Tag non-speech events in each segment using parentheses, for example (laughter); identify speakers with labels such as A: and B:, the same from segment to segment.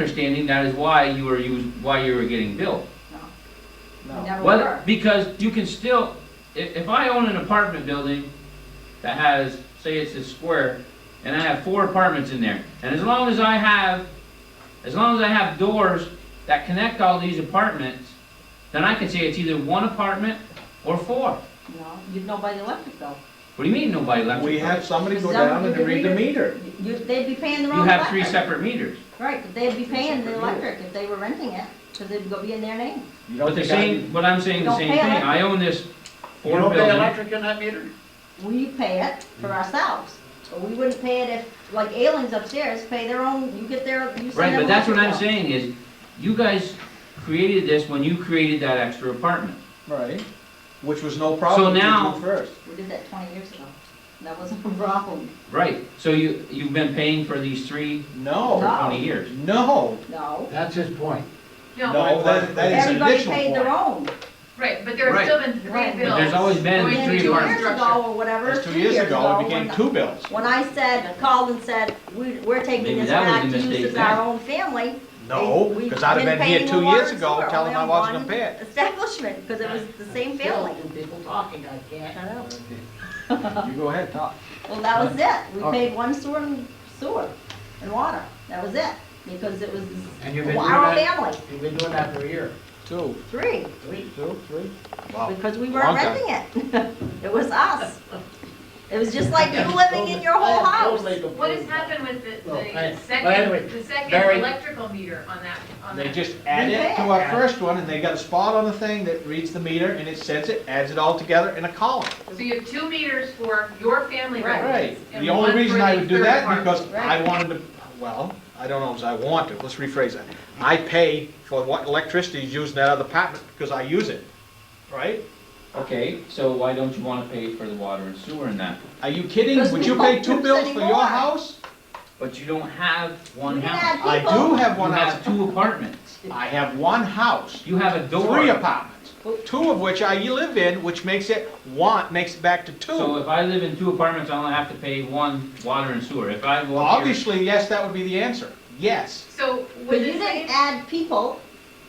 A: understanding that is why you were used, why you were getting billed.
B: No.
C: Never
A: Well,
C: were.
A: because you can still, if, if I own an apartment building that has, say it's a square, and I have four apartments in there, and as long as I have, as long as I have doors that connect all these apartments, then I can say it's either one apartment or four.
C: No, you'd know by the electric bill.
A: What do you mean nobody left?
B: We had somebody go
C: Some-
B: down and read the meter.
C: You, they'd be paying their
A: You
C: own
A: have
C: electric.
A: three separate meters.
C: Right, but they'd be
B: Three
C: paying the
B: separate
C: electric if they were renting it, because it'd go be in their name.
B: You
A: But
B: don't
A: the
B: think I, you
A: same, but I'm saying the
C: Don't
A: same
C: pay
A: thing.
C: electric.
A: I own this four
B: don't pay
A: building.
B: electric in that meter?
C: We pay it for
A: Mm.
C: ourselves, but we wouldn't pay it if, like Alings upstairs, pay their own, you get their, you send
A: Right,
C: them
A: but that's what I'm
C: electric bill.
A: saying is, you guys created this when you created that extra apartment.
B: Right, which was no problem.
A: So now-
B: We did First.
C: We did that twenty years ago. That wasn't a problem,
A: Right, so you, you've been paying for these three for
B: No,
C: No.
A: twenty years.
B: no,
C: no.
D: That's his point.
B: no, that, that is an
C: Everybody
B: additional
C: paid their
B: point.
C: own.
E: Right, but there
A: Right.
E: have still been three
C: Right.
E: bills.
A: But there's always been
E: going
C: And
A: three
E: through
C: two
E: your
C: years
A: apartments.
E: structure.
C: ago or whatever,
B: That's two
C: two
B: years ago, it
C: when
B: became two bills.
C: When I said, called and said, we, we're taking
A: Maybe
C: this
A: that was
C: back
A: a
C: to
A: mistake
C: use as
A: then.
C: our own family.
B: No,
C: we-
B: because I'd have been here
C: paying
B: two
C: the water
B: years
C: and
B: ago
C: sewer
B: telling
C: only
B: I
C: on
B: wasn't
C: one
B: gonna pay it.
C: Establishment, because it was the same family.
D: Still, People talking, I can't.
C: I know.
B: You go ahead, talk.
C: Well, that was it. We
D: Okay.
C: paid one sewer and sewer and water. That was it, because it was
D: And you've been doing
C: our
D: that,
C: family,
D: you've been doing that for a year.
B: Two,
C: three,
D: Three.
B: two, three. Wow.
C: because we
B: Oh, Long
C: weren't
B: time.
C: renting it. (laughs) It was us. It was just like
B: (laughs)
C: you living in your whole house.
E: What has happened with the,
D: Well, hey,
E: the
D: but anyway,
E: second, the second
D: Barry-
E: electrical meter on that, on
B: They
E: that?
B: just add it to our
D: Yeah.
B: first one, and they got a spot on the thing that reads the meter, and it sends it, adds it all together in a column.
E: So you have two meters for your family
C: Right.
B: Right,
E: residence. and
B: the only
E: one
B: reason
E: for
B: I
E: the
B: would do
E: third
B: that,
E: apartment.
B: because I wanted to, well, I don't know if I want to, let's rephrase that. I pay for what electricity is used in that other apartment, because I use it, right?
A: Okay, so why don't you wanna pay for the water and sewer in that?
B: Are you kidding?
C: Because
B: Would
C: we
B: you pay
C: don't
B: two
C: use
B: bills for your
C: anymore.
B: house?
A: But you don't have one
C: We didn't
A: house.
C: have
B: I
C: people.
B: do have
A: You
B: one
A: have
B: house,
A: two apartments.
B: I have one house,
A: You have a door.
B: three apartments, two of which I live in, which makes it one, makes it back to
A: So
B: two.
A: if I live in two apartments, I only have to pay one water and sewer. If I
B: Well,
A: walk here,
B: obviously, yes, that would be the answer, yes.
E: So
C: But you
E: with the
C: didn't
E: second,
C: add people,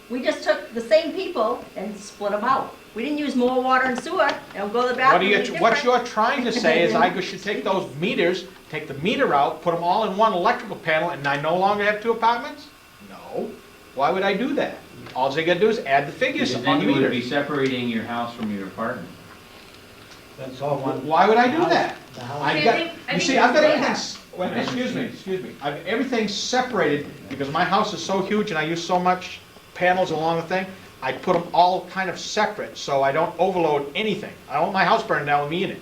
C: we just took the same people and split them out. We didn't use more water and sewer, and go to the
B: What are
C: bathroom,
B: you,
C: be
B: what
C: different.
B: you're trying to say is I should take those meters, take the meter out, put them all in one electrical panel, and I no longer have two apartments? No. Why would I do that? All they gotta do is add the figures
A: because
B: on
A: then
B: the
A: you would be
B: meters.
A: separating your house from your apartment.
D: That's all one.
B: Why would I do that?
D: The house.
B: I've
E: I
B: got,
E: think- I
B: you
E: think
B: see, I've got
E: that's
B: everything, s- wait,
A: Yeah.
B: excuse me, excuse me, I've, everything separated, because my house is so huge and I use so much panels along the thing, I put them all kind of separate, so I don't overload anything. I don't want my house burning down with me in it.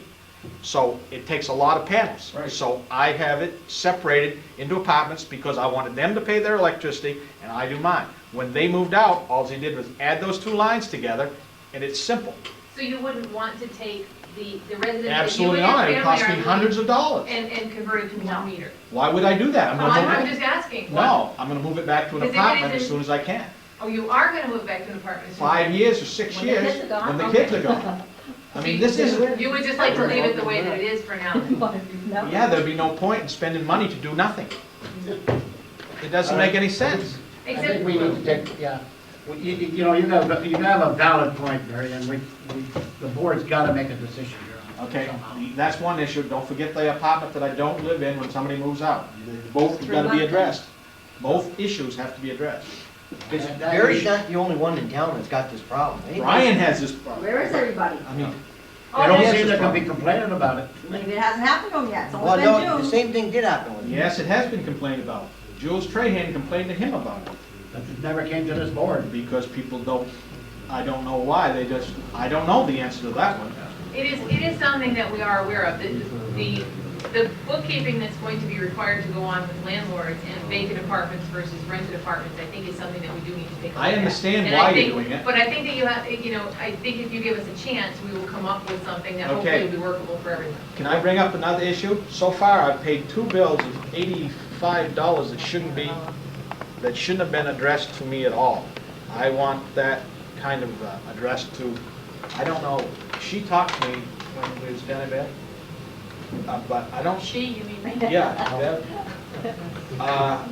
B: So it takes a lot of panels.
A: Right.
B: So I have it separated into apartments because I wanted them to pay their electricity and I do mine. When they moved out, all they did was add those two lines together and it's simple.
E: so you wouldn't want to take the, the residence that you
B: Absolutely
E: and your
B: not, it
E: family
B: cost
E: are
B: me
E: in
B: hundreds of dollars.
E: and, and convert it to
C: No.
E: one meter.
B: Why would I do that? I'm
E: Well,
B: gonna
E: I'm,
B: move it-
E: I'm just asking.
B: No, I'm gonna move it back to an
E: Is it gonna
B: apartment as
E: be-
B: soon as I can.
E: Oh, you are gonna move back to an apartment. so-
B: Five years or six
C: When the
B: years,
C: kids are gone,
B: when the
E: okay.
B: kids are gone. I mean, this is,
E: (laughs) You would just like to leave it the way that it is for
C: (laughs)
E: now.
C: No.
B: yeah, there'd be no point in spending money to do nothing. It doesn't make any sense.
D: I
E: Except.
D: think we need to take, yeah, Well, you, you you know, you have, you have a valid point, Barry, and we, we, the board's gotta make a decision here. on it
B: Okay,
D: somehow.
B: that's one issue. Don't forget the apartment that I don't live in when somebody moves out. Both have gotta be addressed. Both issues have to be addressed.
F: Because
D: That- that
F: Barry's
D: is-
F: not the only one in town that's got this problem. eh?
B: Brian has this problem.
C: Where is everybody?
B: I mean,
D: They
E: Oh,
D: don't
E: that's-
D: seem to be complaining about it.
C: Maybe it hasn't happened to them yet, it's
F: Well,
C: only
F: no, the
C: been June.
F: same thing did happen with him.
B: yes, it has been complained about. Jules Trahan complained to him about it.
D: That it never came to this board.
B: because people don't, I don't know why, they just, I don't know the answer to that one.
E: It is, it is something that we are aware of, the, the, the bookkeeping that's going to be required to go on with landlords and vacant apartments versus rented apartments, I think is something that we do need to take a look at.
B: I understand
E: And I
B: why you're
E: think-
B: doing it.
E: But I think that you have, you know, I think if you give us a chance, we will come up with something that hopefully
B: Okay.
E: will be workable for everyone.
B: Can I bring up another issue? So far, I've paid two bills of eighty-five dollars that shouldn't be, that shouldn't have been addressed to me at all. I want that kind of uh, addressed to, I don't know, she talked to me when we was down in bed, uh, but I don't
E: (laughs) She, you mean?
B: Yeah, that, uh,